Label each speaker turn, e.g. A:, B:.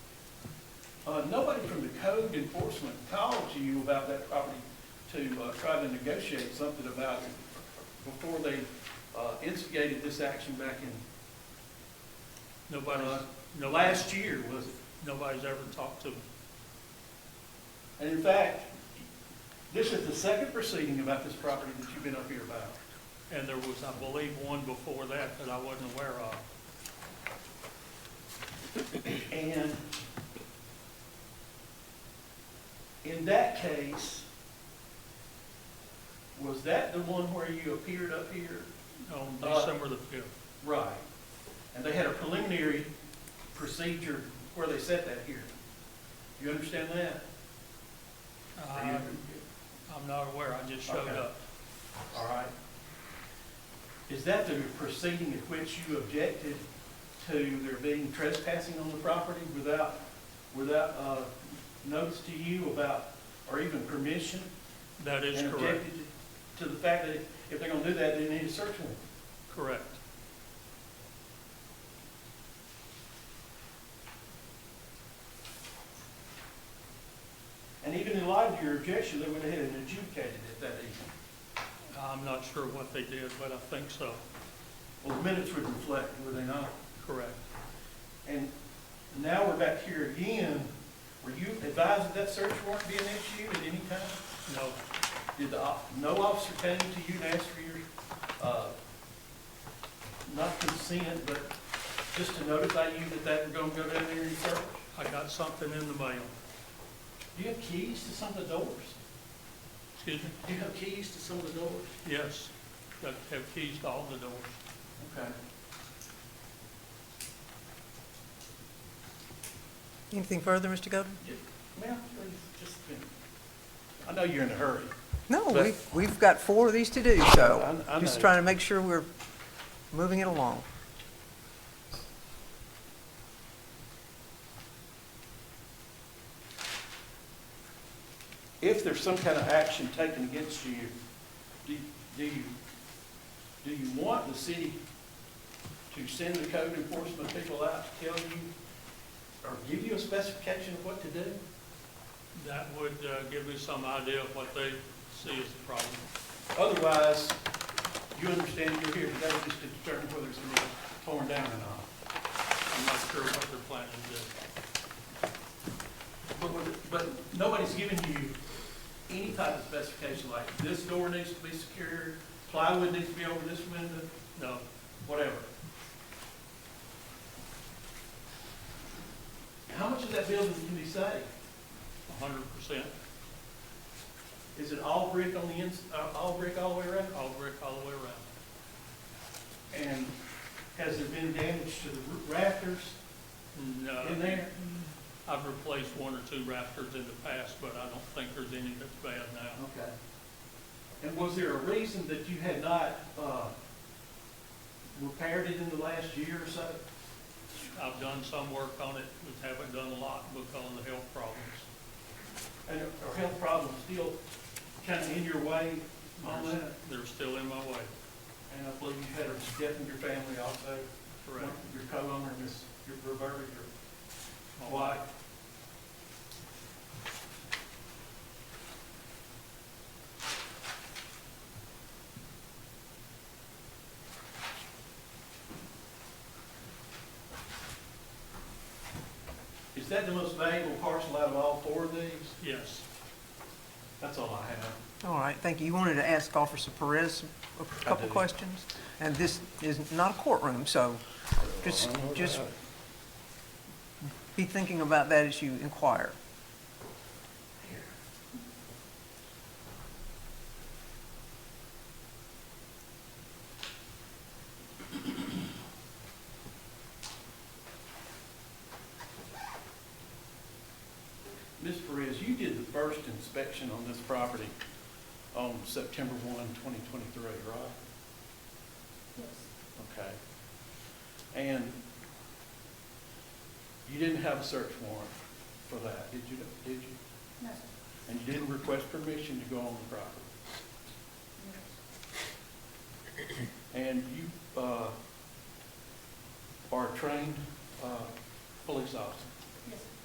A: Uh, nobody from the code enforcement called you about that property to, uh, try to negotiate something about it before they, uh, instigated this action back in,
B: Nobody's,
A: Uh,
B: no, last year was, nobody's ever talked to them.
A: and in fact, this is the second proceeding about this property that you've been up here about.
B: And there was, I believe, one before that that I wasn't aware of.
A: And in that case, was that the one where you appeared up here?
B: On
A: Uh,
B: December the fifth,
A: Right. And they had a preliminary procedure where they set that hearing. You understand that? Are you-
B: I, I'm not aware, I just showed
A: Okay.
B: up.
A: All right. Is that the proceeding at which you objected to there being trespassing on the property without, without, uh, notice to you about, or even permission?
B: That is
A: and
B: correct,
A: objected To the fact that if they're gonna do that, they need a search warrant.
B: correct.
A: And even in light of your objection, they went ahead and adjudicated it that evening.
B: I'm not sure what they did, but I think so,
A: Well, the minutes would reflect, would they not?
B: correct.
A: And now we're back here again. Were you advised that that search warrant be an issue at any time?
B: No,
A: Did the, op- no officer came to you and asked for your, uh, not consent, but just to notify you that they were gonna go down there and search?
B: I got something in the mail,
A: Do you have keys to some of the doors?
B: excuse me,
A: Do you have keys to some of the doors?
B: yes, that have keys to all the doors.
A: Okay.
C: Anything further, Mr. Golden?
A: Yeah, Ma'am, please, just a minute. I know you're in a hurry.
C: No,
A: But-
C: we've, we've got four of these to do, so
A: I- I
C: just
A: know.
C: trying to make sure we're moving it along.
A: If there's some kind of action taken against you, do, do you, do you want the city to send the code enforcement people out to tell you or give you a specification of what to do?
B: That would, uh, give me some idea of what they see as the problem.
A: Otherwise, you understand you're here today just to determine whether it's going to be torn down or not.
B: I'm not sure what they're planning to do.
A: But, with- but nobody's given you any type of specification, like this door needs to be secure, plywood needs to be over this window,
B: No,
A: whatever. How much of that building can be saved?
B: hundred percent,
A: Is it all brick on the ins, uh, all brick all the way around?
B: all brick all the way around.
A: And has there been damage to the roo- rafters in
B: No,
A: there?
B: I've replaced one or two rafters in the past, but I don't think there's any that's bad now.
A: Okay. And was there a reason that you had not, uh, repaired it in the last year or so?
B: I've done some work on it, but haven't done a lot because of the health problems.
A: And are health problems still kind of in your way on
B: There's-
A: that?
B: They're still in my way,
A: And I believe you had a death in your family also.
B: correct?
A: Your co-owner, Miss Roberta, your
B: My
A: wife.
B: wife,
A: Is that the most valuable parcel out of all four of these?
B: Yes,
A: That's all I have.
C: All right, thank you. You wanted to ask Officer Perez a couple
A: do.
C: questions? And this is not a courtroom, so just, just be thinking about that as you inquire.
A: Ms. Perez, you did the first inspection on this property on September 1, 2023, right?
D: Yes,
A: Okay. And you didn't have a search warrant for that, did you, did you?
D: no,
A: And you didn't request permission to go on the property?
D: no,
A: And you uh, are a trained uh, police officer.
D: yes,